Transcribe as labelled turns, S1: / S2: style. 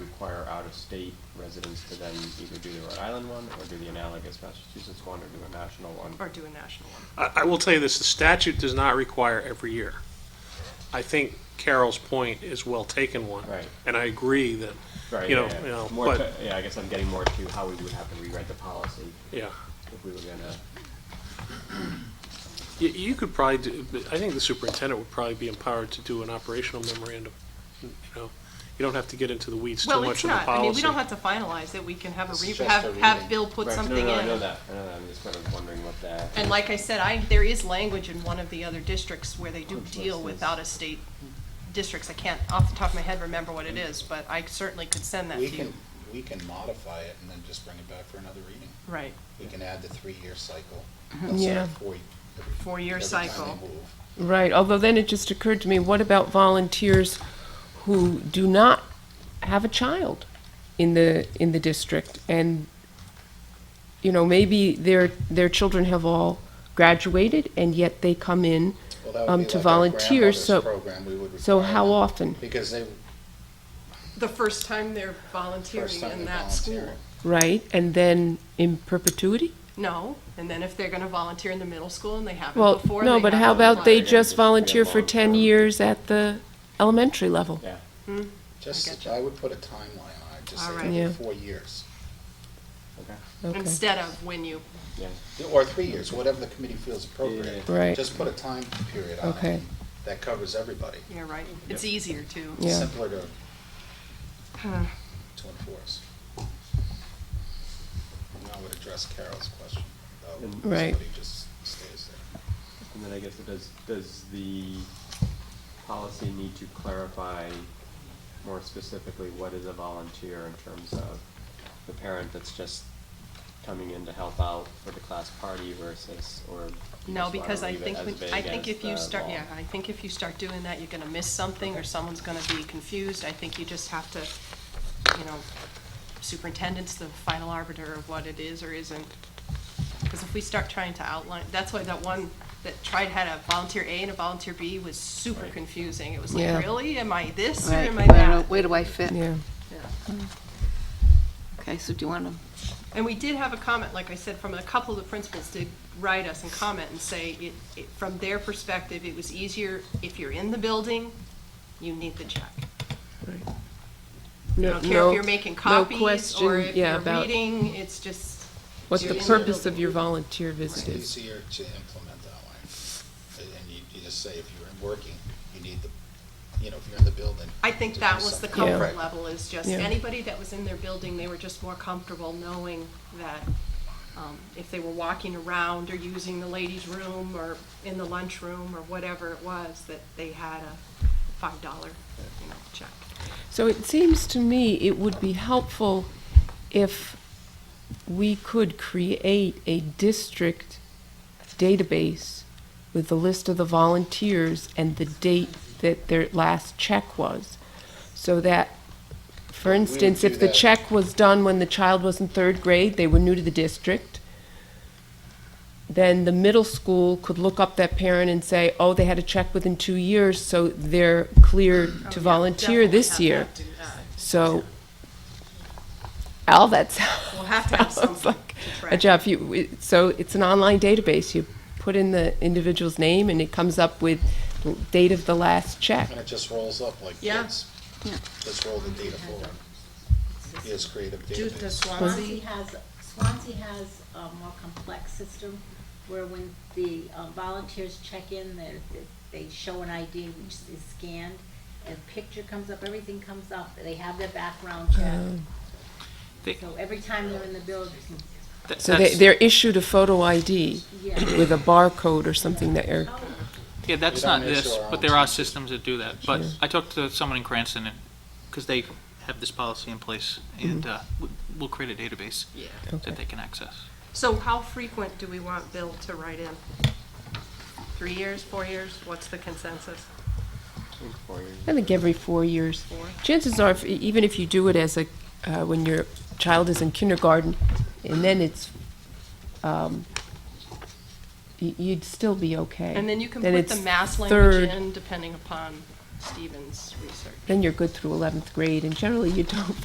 S1: require out-of-state residents to then either do the Rhode Island one or do the analogous Massachusetts one or do a national one.
S2: or do a national one.
S3: I, I will tell you this, the statute does not require every year. I think Carol's point is well taken one.
S1: Right.
S3: And I agree that,
S1: Right,
S3: You know,
S1: yeah, yeah.
S3: you know,
S1: More
S3: but-
S1: to- Yeah, I guess I'm getting more to how we would have to rewrite the policy
S3: yeah,
S1: if we were gonna,
S3: you, you could probably do, I think the superintendent would probably be empowered to do an operational memorandum, you know? You don't have to get into the weeds too
S2: Well, it's
S3: much on the
S2: not,
S3: policy.
S2: I mean, we don't have to finalize it, we can have a,
S1: This is
S2: re-
S1: just a
S2: have, have
S1: reading.
S2: Bill put
S1: Right, no,
S2: something in.
S1: no, I know that, I know that, I'm just kind of wondering what that.
S2: And like I said, I, there is language in one of the other districts where they do
S1: Which
S2: deal
S1: list
S2: with
S1: is-
S2: out-of-state
S1: Mm-hmm.
S2: districts. I can't, off the top of my head, remember what it is, but I certainly could send that to
S4: We can,
S2: you.
S4: we can modify it and then just bring it back for another reading.
S2: Right,
S4: We can add the three-year cycle.
S5: Yeah.
S2: Mm-hmm. Four-year cycle.
S5: Right, although then it just occurred to me, what about volunteers who do not have a child in the, in the district? And, you know, maybe their, their children have all graduated and yet they come in. Um, to volunteer, so- So how often?
S4: Because they,
S2: the first time they're
S4: first
S2: volunteering
S4: time
S2: in
S4: they
S2: that school.
S4: volunteer.
S5: Right, and then in perpetuity?
S2: No, and then if they're gonna volunteer in the middle school and they haven't
S5: Well,
S2: before, they
S5: no, but how
S2: have to
S5: about
S2: apply.
S5: they just volunteer for ten
S1: Long-term.
S5: years at the elementary level?
S1: Yeah,
S4: Just,
S2: getcha.
S4: I would put a timeline on it, just
S2: All
S4: say
S2: right.
S4: every
S5: Yeah.
S4: four years.
S1: okay,
S5: Okay,
S2: Instead of when you,
S1: yeah,
S4: Or three years, whatever the committee feels appropriate.
S5: Yeah. Right.
S4: Just put a time period on it.
S5: Okay.
S4: and That covers everybody.
S2: you're right, it's easier to.
S5: Yeah.
S4: Simpler to, to enforce. And I would address Carol's question, though.
S1: Mm.
S5: Right.
S4: Somebody just stays there.
S1: and then I guess it does, does the policy need to clarify more specifically what is a volunteer in terms of the parent that's just coming in to help out for the class party versus, or? do you just
S2: No,
S1: wanna
S2: because I
S1: leave it
S2: think,
S1: as
S2: when-
S1: vague
S2: I think
S1: as
S2: if you
S1: the
S2: start,
S1: law?
S2: yeah, I think if you start doing that, you're gonna miss something, or someone's gonna be confused. I think you just have to, you know, superintendent's the final arbiter of what it is or isn't. Because if we start trying to outline, that's why that one that tried had a volunteer A and a volunteer B was super
S1: Right.
S2: confusing. It was
S5: Yeah.
S2: like, really? Am I this or
S6: Right,
S2: am I
S6: where do-
S2: that?
S6: where do I fit?
S5: yeah.
S6: Okay, so do you want to,
S2: And we did have a comment, like I said, from a couple of the principals did write us and comment and say, it, it, from their perspective, it was easier, if you're in the building, you need the check. I don't care if you're making copies or if you're reading, it's just.
S5: What's
S2: you're
S5: the
S2: in
S5: purpose
S2: building.
S5: of your volunteer
S4: It's
S5: visit is.
S4: easier to implement that way. And- And you, you just say if you're working, you need the, you know, if you're in the building.
S2: I think that was the
S5: Yeah.
S2: comfort
S4: Right.
S2: level, is just
S5: Yeah.
S2: anybody that was in their building, they were just more comfortable knowing that um, if they were walking around or using the ladies' room or in the lunchroom or whatever it was, that they had a five dollar, you know, check.
S5: So it seems to me it would be helpful if we could create a district database with the list of the volunteers and the date that their last check was. So that, for
S4: We would
S5: instance,
S4: do
S5: if the
S4: that.
S5: check was done when the child was in third grade, they were new to the district, then the middle school could look up that parent and say, oh, they had a check within two years, so they're clear
S2: Oh,
S5: to volunteer this year. So, Al, that's.
S2: We'll have to have
S5: sounds
S2: something
S5: like
S2: to
S5: A
S2: track.
S5: job, you, it- so it's an online database, you put in the individual's name and it comes up with the date of the last check.
S4: And it just rolls up like
S2: Yeah.
S4: kids.
S6: Yeah.
S4: Just roll the data forward. Is creative
S2: Dude, the
S4: database.
S2: Swansea,
S7: Swansea has, Swansea has a more complex system where when the uh, volunteers check in, they're- they, they show an ID which is scanned, and picture comes up, everything comes up, they have their background
S5: Oh. Um,
S7: check.
S3: They-
S7: So every time they're in the building,
S3: That-
S5: So they,
S3: that's-
S5: they're issued a photo ID
S7: yeah. Oh,
S5: with a barcode or something that are,
S8: Yeah, that's
S4: We don't
S8: not
S4: make
S8: this,
S4: sure our
S8: but
S4: own
S8: there are
S4: teachers-
S8: systems that do that. But I talked to someone in Cranston, because they have this policy in place, and uh, we- we'll create a database
S2: Yeah.
S5: Mm-hmm. Okay.
S8: that they can access.
S2: So how frequent do we want Bill to write in? Three years, four years? What's the consensus?
S1: I think four years.
S5: I think every four years.
S2: Four.
S5: Chances are, if- e, even if you do it as a, uh, when your child is in kindergarten, and then it's, um, y- you'd still be okay.
S2: And then you can put the mass language in depending upon Stephen's research.
S5: Then you're good through 11th grade, and generally you don't